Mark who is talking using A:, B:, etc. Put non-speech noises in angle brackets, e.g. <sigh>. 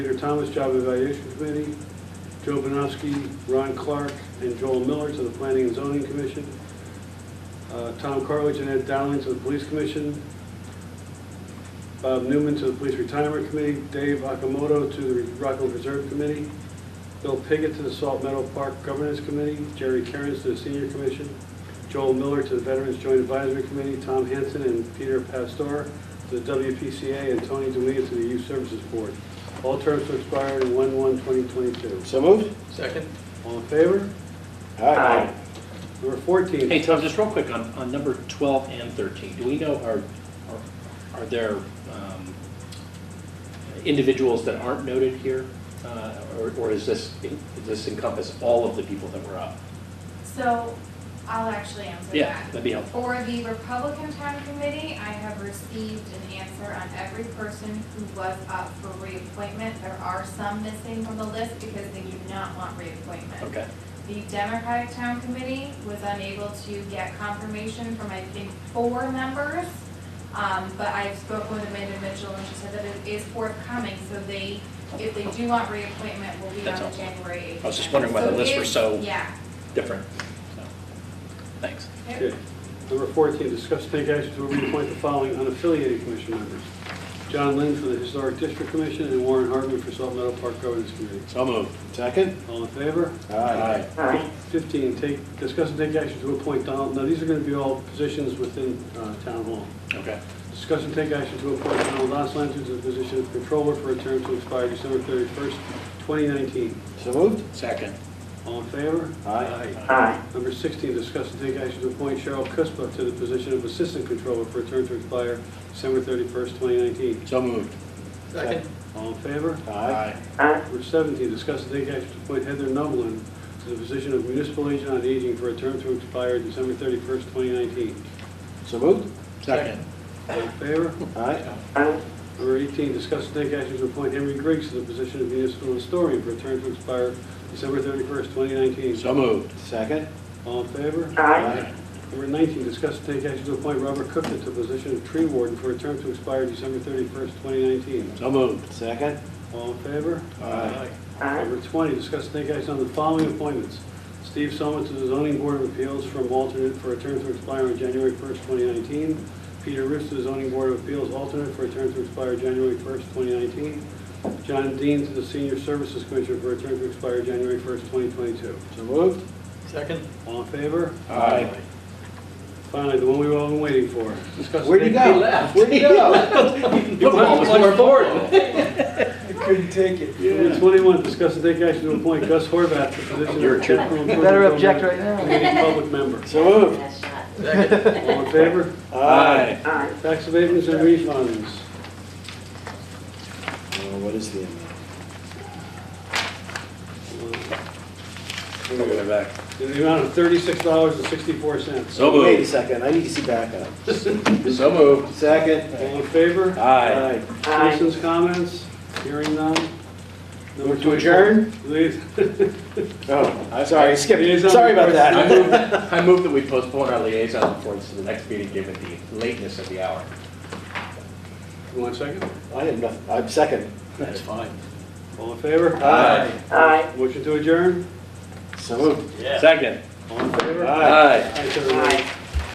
A: Peter Thomas, Job Evaluation Committee, Joe Banowski, Ron Clark, and Joel Miller to the Planning and Zoning Commission, uh, Tom Carledge and Ed Dowling to the Police Commission, Bob Newman to the Police Retirement Committee, Dave Akamoto to the Rockland Reserve Committee, Bill Piggott to the Salt Meadow Park Governance Committee, Jerry Kerns to the Senior Commission, Joel Miller to the Veterans Joint Advisory Committee, Tom Hanson and Peter Pastor to the WPCA, and Tony Dumea to the Youth Services Board. All terms to expire in 1/1/2022.
B: So moved?
C: Second?
A: All in favor?
D: Aye.
A: Number 14.
D: Hey, Tom, just real quick on, on number 12 and 13, do we know, are, are- are there um, individuals that aren't noted here? Uh, Or or is this, does this encompass all of the people that were up?
E: So I'll actually answer
D: Yeah,
E: that.
D: that'd be helpful.
E: For the Republican Town Committee, I have received an answer on every person who was up for reappointment. There are some missing from the list because they do not want reappointment.
D: Okay,
E: The Democratic Town Committee was unable to get confirmation from, I think, four members. Um, but I spoke with Amanda Mitchell and she said that it is forthcoming, so they, if they do want reappointment, will be on
D: That's
E: the
D: all.
E: January eighth.
D: I was just wondering why the
E: So
D: lists were
E: if-
D: so-
E: Yeah.
D: different, so, thanks.
E: Yep.
A: Okay. Number 14, discuss and take action to reappoint the following unaffiliated commission members. John Lynn for the Historic District Commission and Warren Hartman for Salt Meadow Park Governance Committee.
D: So moved.
B: Second?
A: All in favor?
B: Aye.
D: Aye.
A: 15, take, discuss and take action to appoint Donald, now these are going to be all positions within uh, Town Hall.
D: Okay,
A: Discuss and take action to appoint Donald Osline to the position of Controller for a term to expire December 31st, 2019.
B: So moved?
D: second.
A: All in favor?
B: Aye.
D: Aye.
A: Number 16, discuss and take action to appoint Cheryl Cuspa to the position of Assistant Controller for a term to expire December 31st, 2019.
D: So moved.
C: Second?
A: All in favor?
B: Aye.
A: Number 17, discuss and take action to appoint Heather Nublin to the position of Municipal Agent on Aging for a term to expire December 31st, 2019.
B: So moved?
D: Second.
A: All in favor?
B: Aye.
A: Number 18, discuss and take action to appoint Henry Griggs to the position of Municipal Historian for a term to expire December 31st, 2019.
D: So moved.
B: Second?
A: All in favor?
B: Aye.
A: Number 19, discuss and take action to appoint Robert Cook to the position of tree warden for a term to expire December 31st, 2019.
D: So moved.
B: Second?
A: All in favor?
B: Aye.
A: Number 20, discuss and take action on the following appointments. Steve Soma to the zoning board of appeals from alternate for a term to expire on January 1st, 2019. Peter Rips to the zoning board of appeals alternate for a term to expire January 1st, 2019. John Dean to the senior services commissioner for a term to expire January 1st, 2022.
B: So moved?
C: Second?
A: All in favor?
B: Aye.
A: Finally, the one we've all been waiting for. Discuss and
B: Where'd you
A: take-
B: go?
C: He left.
B: Where'd you
C: <laughs>
B: go?
D: You almost went forward.
B: I couldn't take it.
A: Number 21, discuss and take action to appoint Gus Horvath to the position
D: You're a
A: of
D: jerk.
A: capital improvement.
F: Better object
A: Program
F: right now.
A: Committee public member.
B: So moved? <laughs>
C: Second?
A: All in favor?
D: Aye.
A: Tax abatements and refunds.
B: Oh, what is the amount?
D: We're gonna go back.
A: Uh, In the amount of $36.64.
D: So
B: Wait a
D: moved.
B: second, I need to see backup.
D: So moved.
B: Second?
A: All in favor?
D: Aye.
A: Citizens' comments? Hearing none? Number
B: Move to adjourn?
A: 24, liais-
B: Oh, I'm sorry, I skipped,
A: Liaison
B: sorry about
A: reports.
D: I
B: that.
D: move, I move that we postpone our liaison reports to the next meeting, given the lateness of the hour.
A: <laughs> One second.
B: <laughs> I had nothing, I'm second.
D: That's fine.
A: All in favor?
B: Aye.
A: Motion to adjourn?
B: So moved?
C: Yeah.
D: Second.
A: All in favor?
B: Aye.
D: Aye.
A: Ayes have it.